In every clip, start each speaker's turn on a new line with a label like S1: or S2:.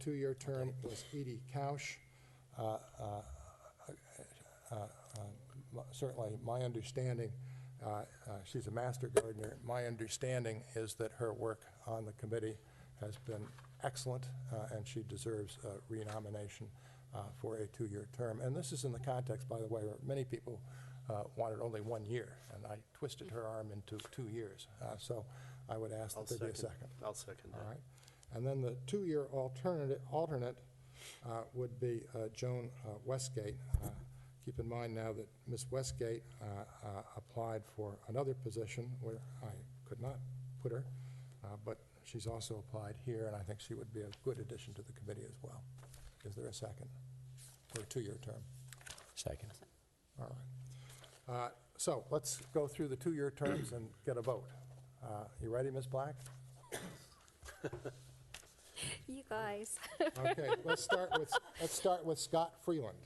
S1: two-year term was Edie Couch. Uh, uh, m- certainly, my understanding, uh, uh, she's a master gardener, my understanding is that her work on the committee has been excellent, uh, and she deserves uh, renomination uh, for a two-year term. And this is in the context, by the way, where many people uh, wanted only one year, and I twisted her arm into two years. Uh, So I would ask
S2: I'll
S1: that there be a second.
S2: I'll second
S1: All
S2: that.
S1: right. And then the two-year alternate, alternate uh, would be uh, Joan uh, Westgate. Uh, Keep in mind now that Ms. Westgate uh, uh, applied for another position where I could not put her, uh, but she's also applied here, and I think she would be a good addition to the committee as well. Is there a second for a two-year term?
S3: Second.
S1: All right. Uh, So let's go through the two-year terms and get a vote. Uh, You ready, Ms. Black?
S4: You guys,
S1: Okay, let's start with, let's start with Scott Freeland.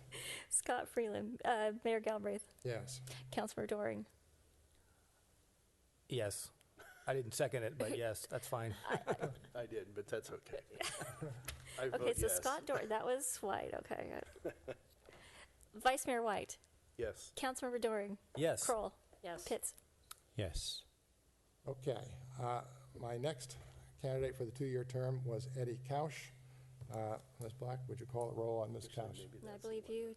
S4: Scott Freeland, uh, Mayor Galbraith,
S1: Yes.
S4: Councilor Doring.
S3: Yes. I didn't second it, but yes, that's fine.
S2: I did, but that's okay. I
S4: Okay,
S2: vote
S4: so
S2: yes.
S4: Scott Doring, that was White, okay. Vice Mayor White,
S2: Yes,
S4: Councilmember Doring,
S3: Yes.
S4: Kroll,
S5: Yes.
S4: Pitts.
S3: Yes.
S1: Okay, uh, my next candidate for the two-year term was Eddie Couch. Uh, Ms. Black, would you call the roll on Ms. Couch?
S2: maybe
S4: And I
S2: that's the
S4: believe
S2: one.
S4: you,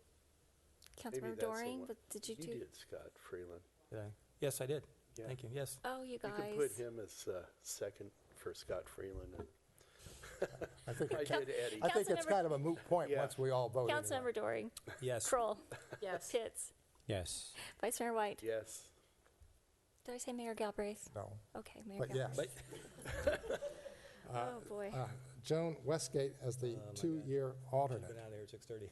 S2: Maybe
S4: Councilmember
S2: that's the
S4: Doring,
S2: one.
S4: but did you
S2: You
S4: do?
S2: did Scott Freeland.
S3: Did I? Yes, I did.
S2: Yeah.
S3: Thank you. Yes.
S4: Oh, you
S2: You can put
S4: guys.
S2: him as uh, second for Scott Freeland. and-
S1: I think,
S2: I
S1: it-
S2: did Eddie.
S1: I think it's
S4: Councilmember-
S1: kind of a moot point
S2: Oh, Yeah.
S1: once we all vote. anyway.
S4: Councilmember Doring,
S3: Yes.
S4: Kroll,
S5: Yes.
S4: Pitts,
S3: Yes.
S4: Vice Mayor White.
S2: Yes,
S4: Did I say Mayor Galbraith?
S1: No,
S4: Okay, Mayor
S1: but yes.
S4: Galbraith.
S3: But
S4: Oh, boy.
S1: Uh, Joan Westgate as the two-year alternate.
S3: out of here at six thirty.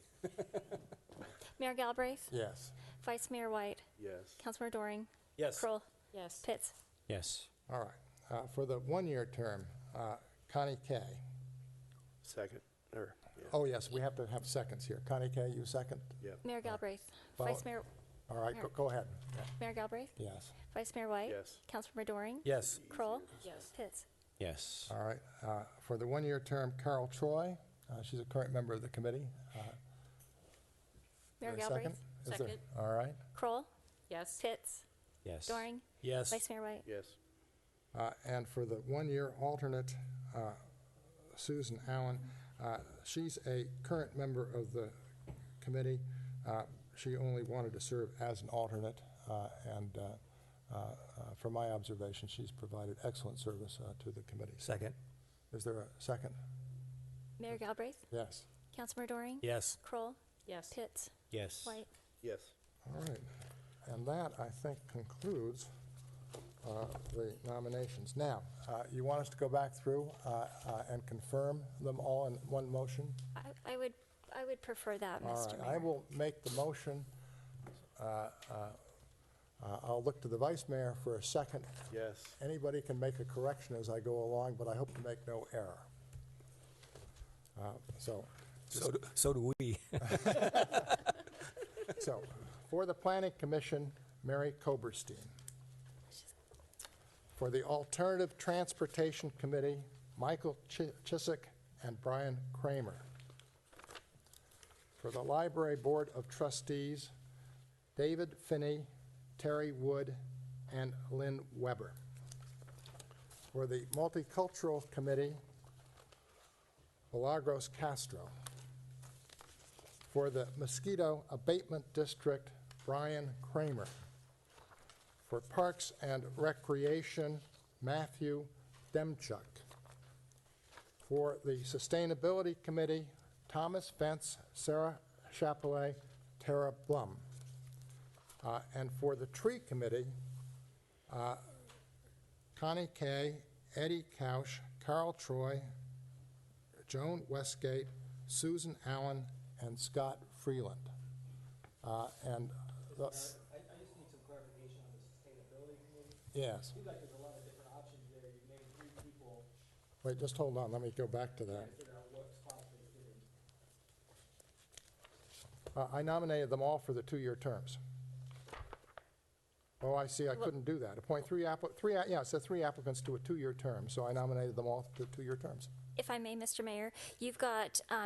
S4: Mayor Galbraith,
S1: Yes.
S4: Vice Mayor White,
S2: yes.
S4: Councilmember Doring,
S3: Yes.
S4: Kroll,
S5: Yes.
S4: Pitts.
S3: Yes.
S1: All right. Uh, For the one-year term, uh, Connie Kay.
S2: Second, or, yeah,
S1: Oh, yes, we have to have seconds here. Connie Kay, you second?
S2: yeah.
S4: Mayor Galbraith,
S1: Uh, Well-
S4: Vice Mayor,
S1: All right, go- go ahead.
S4: Mayor Galbraith,
S1: Yes.
S4: Vice Mayor White.
S2: Yes.
S4: Councilmember Doring.
S3: Yes.
S4: Kroll.
S5: Yes.
S4: Pitts.
S3: Yes.
S1: All right, uh, for the one-year term, Carol Troy, uh, she's a current member of the committee. Uh, is
S4: Mayor
S1: there a second?
S4: Galbraith.
S1: Is there-
S5: Second.
S1: All right.
S4: Kroll.
S5: Yes.
S4: Pitts.
S3: Yes.
S4: Doring.
S3: Yes.
S4: Vice Mayor White.
S2: Yes,
S1: Uh, And for the one-year alternate, uh, Susan Allen, uh, she's a current member of the committee. Uh, She only wanted to serve as an alternate, uh, and uh, uh, uh, from my observation, she's provided excellent service uh, to the committee.
S3: Second.
S1: Is there a second?
S4: Mayor Galbraith.
S1: Yes.
S4: Councilmember Doring.
S3: Yes.
S4: Kroll.
S5: Yes.
S4: Pitts.
S3: Yes.
S4: White.
S2: yes.
S1: All right, and that, I think, concludes uh, the nominations. Now, uh, you want us to go back through uh, uh, and confirm them all in one motion?
S4: I, I would, I would prefer that,
S1: All
S4: Mr.
S1: right, I
S4: Mayor.
S1: will make the motion. Uh, uh, uh, I'll look to the vice mayor for a second.
S2: Yes,
S1: Anybody can make a correction as I go along, but I hope to make no error. Uh, So,
S3: So, do- so do we.
S1: so, for the planning commission, Mary Koberstein. For the Alternative Transportation Committee, Michael Chi- Chiswick and Brian Kramer. For the Library Board of Trustees, David Finney, Terry Wood, and Lynn Weber. For the Multicultural Committee, Milagros Castro. For the Mosquito Abatement District, Brian Kramer. For Parks and Recreation, Matthew Demchuk. For the Sustainability Committee, Thomas Fence, Sarah Chapelet, Tara Blum. Uh, And for the Tree Committee, uh, Connie Kay, Eddie Couch, Carol Troy, Joan Westgate, Susan Allen, and Scott Freeland. Uh, And, the-
S6: I, I just need some clarification on the sustainability committee.
S1: yes.
S6: Seems like there's a lot of different options there. You've named three people,
S1: Wait, just hold on, let me go back to
S6: trying
S1: that.
S6: to figure out what spots they're getting.
S1: Uh, I nominated them all for the two-year terms. Oh, I see, I couldn't do that. Appoint three applic, three, a- yeah, it said three applicants to a two-year term, so I nominated them all to two-year terms.
S4: If I may, Mr. Mayor, you've got um,